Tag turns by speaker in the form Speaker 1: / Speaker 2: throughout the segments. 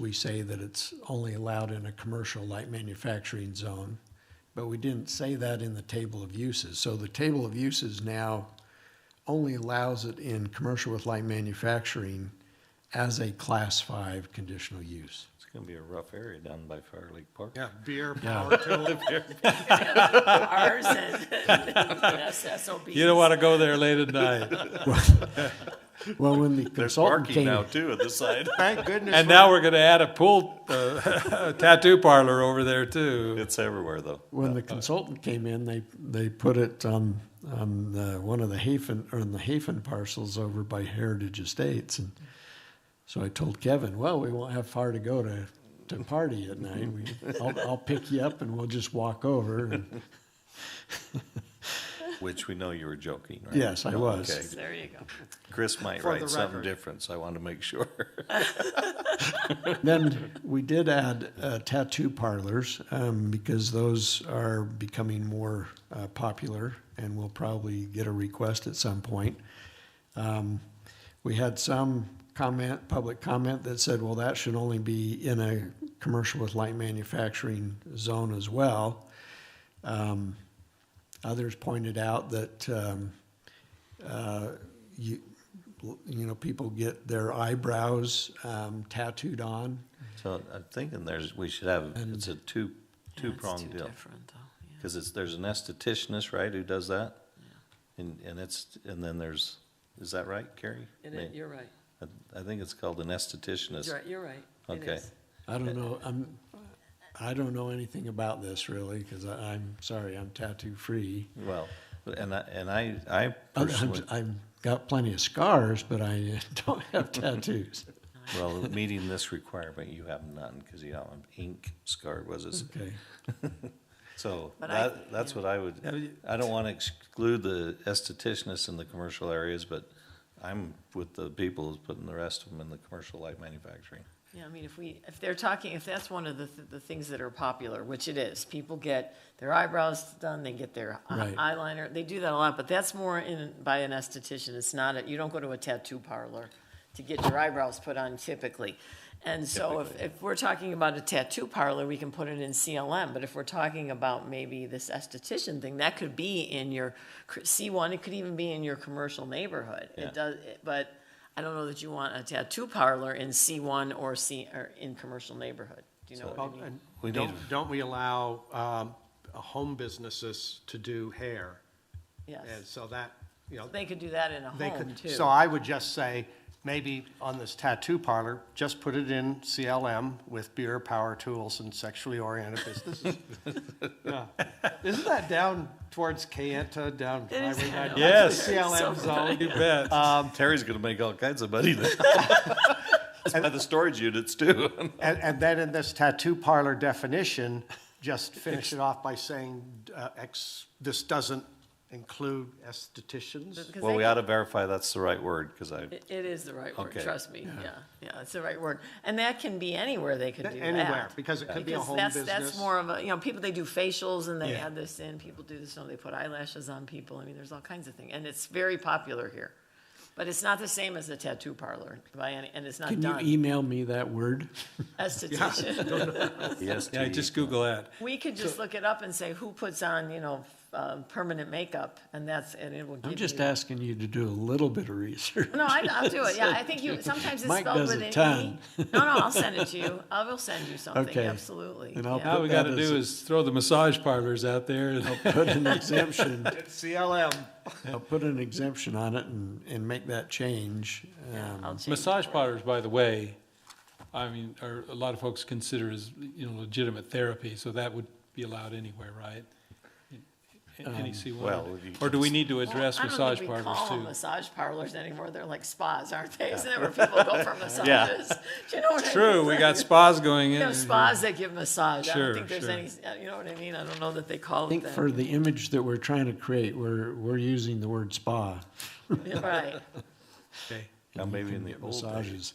Speaker 1: we say that it's only allowed in a commercial light manufacturing zone, but we didn't say that in the table of uses. So the table of uses now only allows it in commercial with light manufacturing as a class five conditional use.
Speaker 2: It's gonna be a rough area down by Fire Lake Park.
Speaker 3: Yeah, beer,
Speaker 1: Yeah.
Speaker 3: power tool.
Speaker 4: Ours and SSOBs.
Speaker 2: You don't wanna go there late at night.
Speaker 1: Well, when the
Speaker 2: There's
Speaker 1: consultant
Speaker 2: parking
Speaker 1: came.
Speaker 2: now too at the side.
Speaker 3: Thank goodness.
Speaker 2: And
Speaker 3: we're-
Speaker 2: now we're gonna add a pool, uh, tattoo parlor over there too. It's everywhere though.
Speaker 1: When the consultant came in, they, they put it on, on the, one of the Hafen, or on the Hafen parcels over by Heritage Estates. And so I told Kevin, well, we won't have far to go to, to party at night. We, I'll, I'll pick you up and we'll just walk over. And
Speaker 2: Which we know you were joking, right?
Speaker 1: Yes, I was.
Speaker 2: Okay.
Speaker 4: There you go.
Speaker 2: Chris might
Speaker 3: For the
Speaker 2: write something
Speaker 3: record.
Speaker 2: different, so I want to make sure.
Speaker 1: Then we did add uh, tattoo parlors, um, because those are becoming more, uh, popular and we'll probably get a request at some point. Um, We had some comment, public comment that said, well, that should only be in a commercial with light manufacturing zone as well. Um, Others pointed out that, um, uh, you, you know, people get their eyebrows um, tattooed on.
Speaker 2: So I'm thinking there's, we should have, it's a two, two-pronged deal. Because it's, there's an estheticianist, right, who does that? And, and it's, and then there's, is that right, Carrie? May-
Speaker 4: You're right,
Speaker 2: I- I think it's called an estheticianist.
Speaker 4: you're right, you're right. It
Speaker 2: Okay.
Speaker 4: is.
Speaker 1: I don't know, I'm, I don't know anything about this really, because I'm sorry, I'm tattoo free.
Speaker 2: Well, and I, and I, I
Speaker 1: I'm-
Speaker 2: personally,
Speaker 1: I've got plenty of scars, but I don't have tattoos.
Speaker 2: well, meeting this requirement, you have none, because you don't have ink scarred, was it?
Speaker 1: Okay.
Speaker 2: So
Speaker 4: But I-
Speaker 2: that, that's what I would,
Speaker 3: Yeah, you-
Speaker 2: I don't want to exclude the estheticianists in the commercial areas, but I'm with the people who's putting the rest of them in the commercial light manufacturing.
Speaker 4: Yeah, I mean, if we, if they're talking, if that's one of the, th- the things that are popular, which it is, people get their eyebrows done, they get their eye-
Speaker 1: Right.
Speaker 4: eyeliner, they do that a lot, but that's more in, by an esthetician, it's not, a- you don't go to a tattoo parlor to get your eyebrows put on typically. And so if, if we're talking about a tattoo parlor, we can put it in CLM, but if we're talking about maybe this esthetician thing, that could be in your cr- C1, it could even be in your commercial neighborhood.
Speaker 2: Yeah.
Speaker 4: It does, it- but I don't know that you want a tattoo parlor in C1 or C, or in commercial neighborhood. Do you know
Speaker 3: Well,
Speaker 4: what I mean?
Speaker 3: and
Speaker 2: We need
Speaker 3: Don't, don't we allow, um, uh, home businesses to do hair? And
Speaker 4: Yes.
Speaker 3: so that, you know,
Speaker 4: They could do that in a
Speaker 3: they
Speaker 4: home,
Speaker 3: could,
Speaker 4: too.
Speaker 3: so I would just say, maybe on this tattoo parlor, just put it in CLM with beer, power tools, and sexually oriented businesses. Yeah. Isn't that down towards Kayenta, down
Speaker 4: It is.
Speaker 3: Highway
Speaker 4: I
Speaker 3: 99?
Speaker 4: know.
Speaker 2: Yes.
Speaker 3: CLM
Speaker 4: So
Speaker 3: zone.
Speaker 2: You bet. Um, Terry's gonna make all kinds of money now. That's by the storage units too.
Speaker 3: And, and then in this tattoo parlor definition, just finish it off by saying, uh, ex, this doesn't include estheticians.
Speaker 4: 'Cause
Speaker 2: Well,
Speaker 4: they
Speaker 2: we
Speaker 4: could-
Speaker 2: ought to verify that's the right word, because I,
Speaker 4: It it is the right word,
Speaker 2: Okay.
Speaker 4: trust me. Yeah, yeah, it's the right word. And that can be anywhere they could do that.
Speaker 3: Anywhere, because it could be a
Speaker 4: Because
Speaker 3: home
Speaker 4: that's,
Speaker 3: business.
Speaker 4: that's more of a, you know, people, they do facials and they
Speaker 3: Yeah.
Speaker 4: add this in, people do this, no, they put eyelashes on people, I mean, there's all kinds of things, and it's very popular here. But it's not the same as a tattoo parlor by any, and it's not
Speaker 1: Can you
Speaker 4: done,
Speaker 1: email me that word?
Speaker 4: esthetician.
Speaker 2: yes,
Speaker 5: Yeah,
Speaker 2: to-
Speaker 5: just Google that.
Speaker 4: We could just look it up and say, who puts on, you know, uh, permanent makeup, and that's, and it will give you.
Speaker 1: I'm just asking you to do a little bit of research.
Speaker 4: No, I, I'll do it, yeah, I think you, sometimes it's
Speaker 1: Mike
Speaker 4: spelled
Speaker 1: does
Speaker 4: with
Speaker 1: a
Speaker 4: an E.
Speaker 1: ton.
Speaker 4: No, no, I'll send it to you, I will send you something,
Speaker 1: Okay.
Speaker 4: absolutely,
Speaker 1: And I'll
Speaker 4: yeah.
Speaker 5: All we
Speaker 1: That
Speaker 5: gotta
Speaker 1: is-
Speaker 5: do is throw the massage parlors out there and
Speaker 1: Put an exemption,
Speaker 3: CLM.
Speaker 1: I'll put an exemption on it and, and make that change.
Speaker 4: Yeah,
Speaker 1: Um,
Speaker 4: I'll change
Speaker 5: Massage
Speaker 4: it.
Speaker 5: parlors, by the way, I mean, are, a lot of folks consider as, you know, legitimate therapy, so that would be allowed anywhere, right? Any C
Speaker 2: well,
Speaker 5: one,
Speaker 2: you-
Speaker 5: or do we need to
Speaker 4: Well,
Speaker 5: address
Speaker 4: I don't
Speaker 5: massage
Speaker 4: think we
Speaker 5: parlors
Speaker 4: call them
Speaker 5: too?
Speaker 4: Massage parlors anymore, they're like spas, aren't they? Isn't that where people go for massages? Do you know what I mean?
Speaker 5: True, we got spas going
Speaker 4: We
Speaker 5: in.
Speaker 4: have spas that give massage, I don't
Speaker 5: Sure,
Speaker 4: think there's
Speaker 5: sure.
Speaker 4: any, uh, you know what I mean, I don't know that they call
Speaker 1: I
Speaker 4: it
Speaker 1: think
Speaker 4: that.
Speaker 1: for the image that we're trying to create, we're, we're using the word spa.
Speaker 4: Right,
Speaker 5: Okay.
Speaker 2: now maybe in the old days.
Speaker 1: Massages.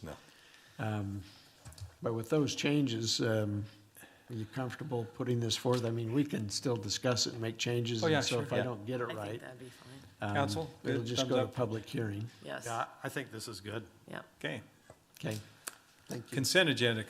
Speaker 1: But with those changes, um, are you comfortable putting this forth? I mean, we can still discuss it and make changes.
Speaker 5: Oh, yeah,
Speaker 1: and So
Speaker 5: sure,
Speaker 1: if I
Speaker 5: yeah.
Speaker 1: don't get it
Speaker 4: I think
Speaker 1: right,
Speaker 4: that'd be fine,
Speaker 1: um,
Speaker 5: Counsel,
Speaker 1: it'll
Speaker 5: good,
Speaker 1: just
Speaker 5: thumbs
Speaker 1: go to
Speaker 5: up.
Speaker 1: public hearing.
Speaker 4: yes,
Speaker 3: Yeah, I think this is good.
Speaker 4: yeah.
Speaker 5: Okay,
Speaker 1: Okay.
Speaker 5: consent agenda